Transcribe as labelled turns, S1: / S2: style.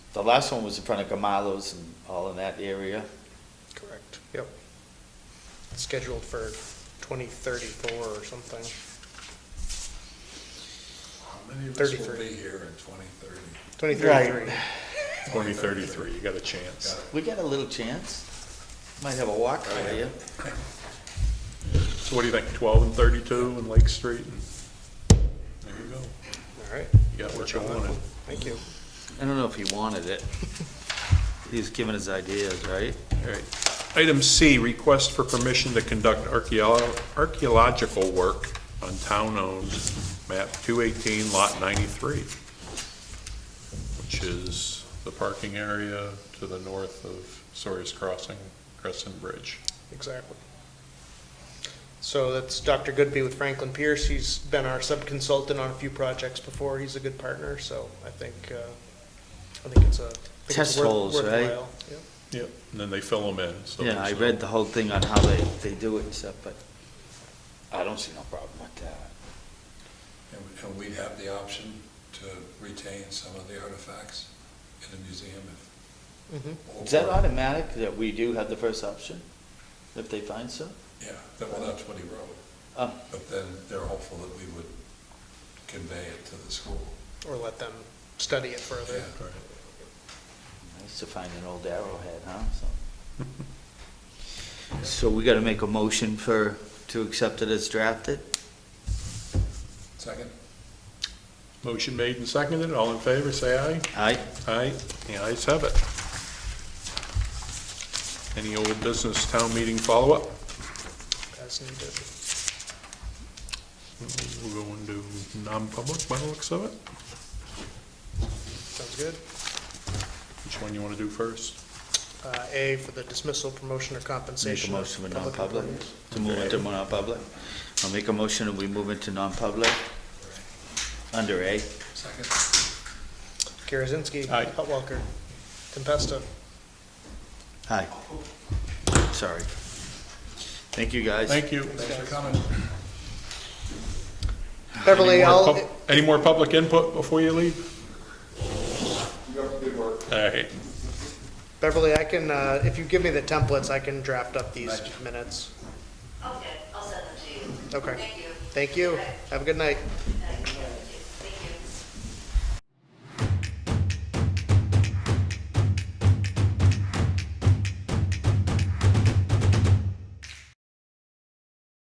S1: The last one was in front of Gamalo's and all in that area.
S2: Correct, yep. Scheduled for 2034 or something.
S3: How many of us will
S2: 33.
S3: be here in twenty thirty?
S2: 2033.
S4: Twenty thirty-three, you got a chance.
S1: We got a little chance. Might have a walk for you.
S4: So what do you think, twelve and thirty-two and Lake Street? and There you go.
S2: All right,
S4: You got what you wanted.
S2: thank you.
S1: I don't know if he wanted it. He was giving his ideas, right?
S4: All right. Item C, request for permission to conduct archaeo- archaeological work on town-owned map 218, lot 93, which is the parking area to the north of Sawyer's Crossing, Crescent Bridge.
S2: Exactly. So that's Dr. Goodby with Franklin Pierce. He's been our sub-consultant on a few projects before. He's a good partner, so I think, uh, I think it's a. I think it's
S1: Test
S2: worth-
S1: holes, right?
S2: worthwhile. Yep.
S4: Yep. And then they fill them in, so.
S1: Yeah, I read the whole thing on how they, they do it and stuff, but I don't see no problem with that.
S3: And we- And we'd have the option to retain some of the artifacts in the museum if.
S2: Mhm.
S1: Mm-hmm. Is that automatic that we do have the first option if they find some?
S3: Yeah, that- well, that's what he wrote,
S1: Oh,
S3: but then they're hopeful that we would convey it to the school.
S2: Or let them study it further.
S3: Yeah.
S4: Right.
S1: I used to find an old arrowhead, huh? So- So we gotta make a motion for, to accept it as drafted?
S3: Second?
S4: Motion made and seconded, all in favor, say aye.
S1: Aye?
S4: Aye, the ayes have it. Any old business town meeting follow-up?
S2: As needed.
S4: We'll go into non-public by the looks of it.
S2: Sounds good.
S4: Which one you want to do first?
S2: Uh, A for the dismissal, promotion, or
S1: Make a
S2: compensation. of
S1: motion for
S2: public
S1: non-public,
S2: employees.
S1: to move into non-public. I'll make a motion and we move into non-public under A.
S3: Second?
S2: Karazinski.
S4: Aye.
S2: Hutwalker. Tempesta.
S1: Hi. Sorry. Thank you, guys.
S4: Thank you.
S3: Thanks for coming.
S2: Beverly,
S4: Any more
S2: I'll,
S4: pub- Any more public input before you leave? All right,
S2: Beverly, I can, uh, if you give me the templates, I can draft up these minutes.
S5: Okay, I'll send them to you.
S2: Okay.
S5: Thank you.
S2: Thank you. Have a good night.
S5: Good night.